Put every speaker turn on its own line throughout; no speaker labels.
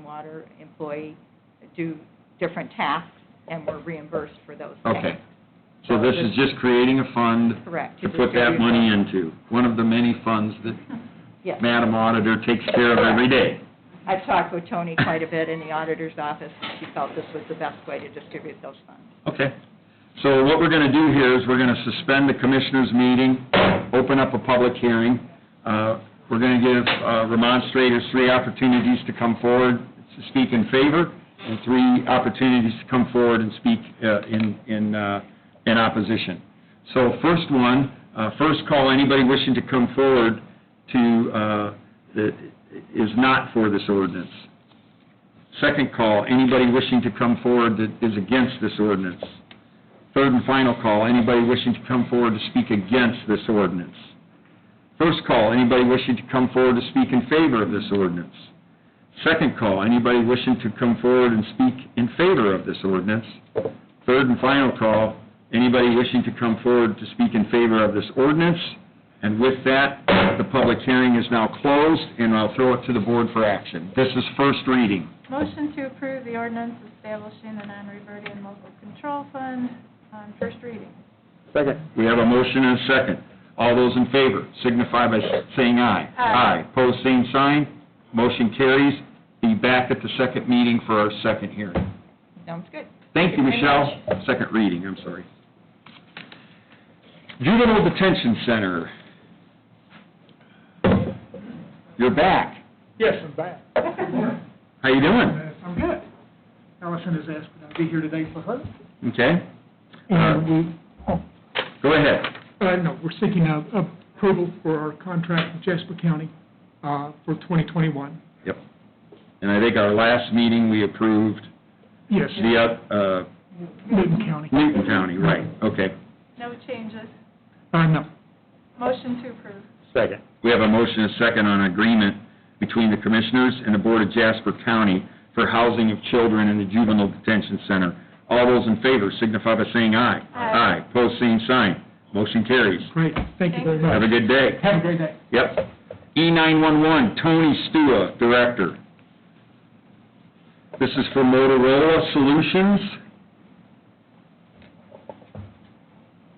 wastewater employee do different tasks, and we're reimbursed for those tasks.
Okay. So this is just creating a fund
Correct.
to put that money into, one of the many funds that
Yes.
Madam Auditor takes care of every day.
I've talked with Tony quite a bit in the auditor's office, and she felt this was the best way to distribute those funds.
Okay. So what we're going to do here is we're going to suspend the commissioners' meeting, open up a public hearing. Uh, We're going to give uh, remonstrators three opportunities to come forward, to speak in favor, and three opportunities to come forward and speak uh, in, in, uh, in opposition. So first one, uh, first call, anybody wishing to come forward to, uh, that is not for this ordinance. Second call, anybody wishing to come forward that is against this ordinance. Third and final call, anybody wishing to come forward to speak against this ordinance. First call, anybody wishing to come forward to speak in favor of this ordinance. Second call, anybody wishing to come forward and speak in favor of this ordinance. Third and final call, anybody wishing to come forward to speak in favor of this ordinance. And with that, the public hearing is now closed, and I'll throw it to the board for action. This is first reading.
Motion to approve the ordinance establishing the non-reverting local control fund on first reading.
Second. We have a motion and a second. All those in favor signify by saying aye.
Aye.
Pose same sign, motion carries. Be back at the second meeting for our second hearing.
Sounds good.
Thank you,
Thank you very
Michelle. Second reading, I'm sorry. Juvenile Detention Center. You're back.
Yes, I'm back.
How you doing?
Uh, I'm good. Allison has asked me to be here today for her.
Okay, Uh,
And we, oh,
go ahead.
uh, no, we're seeking uh, approval for our contract with Jasper County uh, for 2021.
Yep. And I think our last meeting, we approved
Yes,
the, uh,
Newton County.
Newton County, right, okay.
No changes.
Uh, no.
Motion to approve.
Second. We have a motion and a second on agreement between the Commissioners and the Board of Jasper County for housing of children in the Juvenile Detention Center. All those in favor signify by saying aye.
Aye.
Aye, pose same sign. Motion carries.
Great, thank you very much.
Have a good day.
Have a great day.
Yep. E E911, Tony Stua, Director. This is for Motorola Solutions.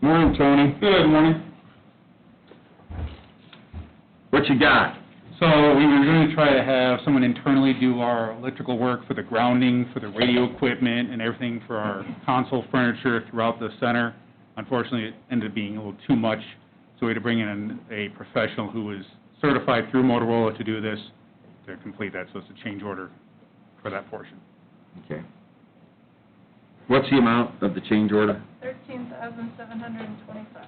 Morning, Tony. Good morning. What you got?
So we were going to try to have someone internally do our electrical work for the grounding, for the radio equipment, and everything for our console furniture throughout the center. Unfortunately, it ended up being a little too much, so we had to bring in a professional who was certified through Motorola to do this, to complete that, so it's a change order for that portion.
Okay. What's the amount of the change order?
Thirteen thousand seven hundred and twenty-five.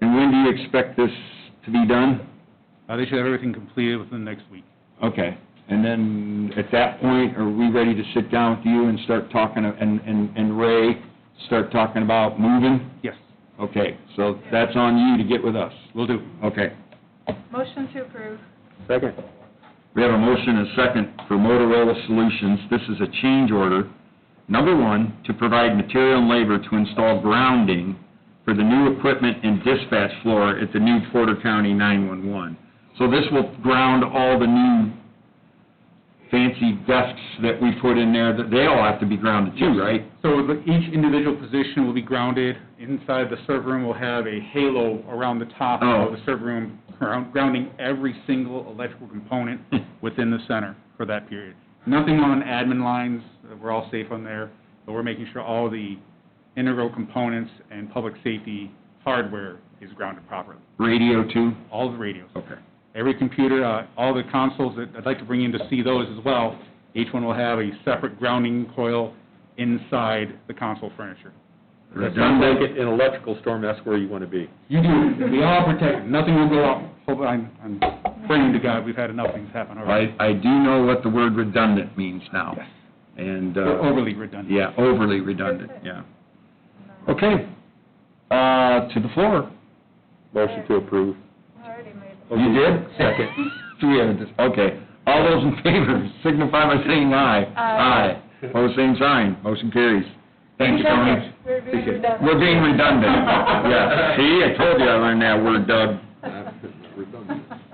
And when do you expect this to be done?
Uh, They should have everything completed within the next week.
Okay. And then, at that point, are we ready to sit down with you and start talking, and, and and Ray, start talking about moving?
Yes,
Okay, so that's on you to get with us.
will do.
Okay.
Motion to approve.
Second. We have a motion and a second for Motorola Solutions. This is a change order. Number one, to provide material and labor to install grounding for the new equipment and dispatch floor at the new Porter County 911. So this will ground all the new fancy desks that we put in there, that they all have to be grounded too, right?
So the- each individual position will be grounded. Inside the server room, we'll have a halo around the top
Oh.
of the server room, ground- grounding every single electrical component within the center for that period. Nothing on admin lines, uh, we're all safe on there, but we're making sure all the integral components and public safety hardware is grounded properly.
Radio too?
All the radios,
Okay.
every computer, uh, all the consoles, that I'd like to bring in to see those as well. Each one will have a separate grounding coil inside the console furniture.
Redundant.
an electrical storm, that's where you want to be.
You do, we all protect, nothing will go off. Hope- I'm, I'm praying to God, we've had enough things happen already.
I, I do know what the word redundant means now.
Yes.
And, uh...
We're Overly redundant.
Yeah, overly redundant, yeah. Okay, uh, to the floor.
Motion to approve.
Already made.
You did?
Second.
So we have a dis okay. All those in favor signify by saying aye.
Aye.
Aye. Pose same sign, motion carries. Thank you, Tony.
We're being redundant.
We're being redundant, yeah. See, I told you I learned that word, Doug.
Redundant.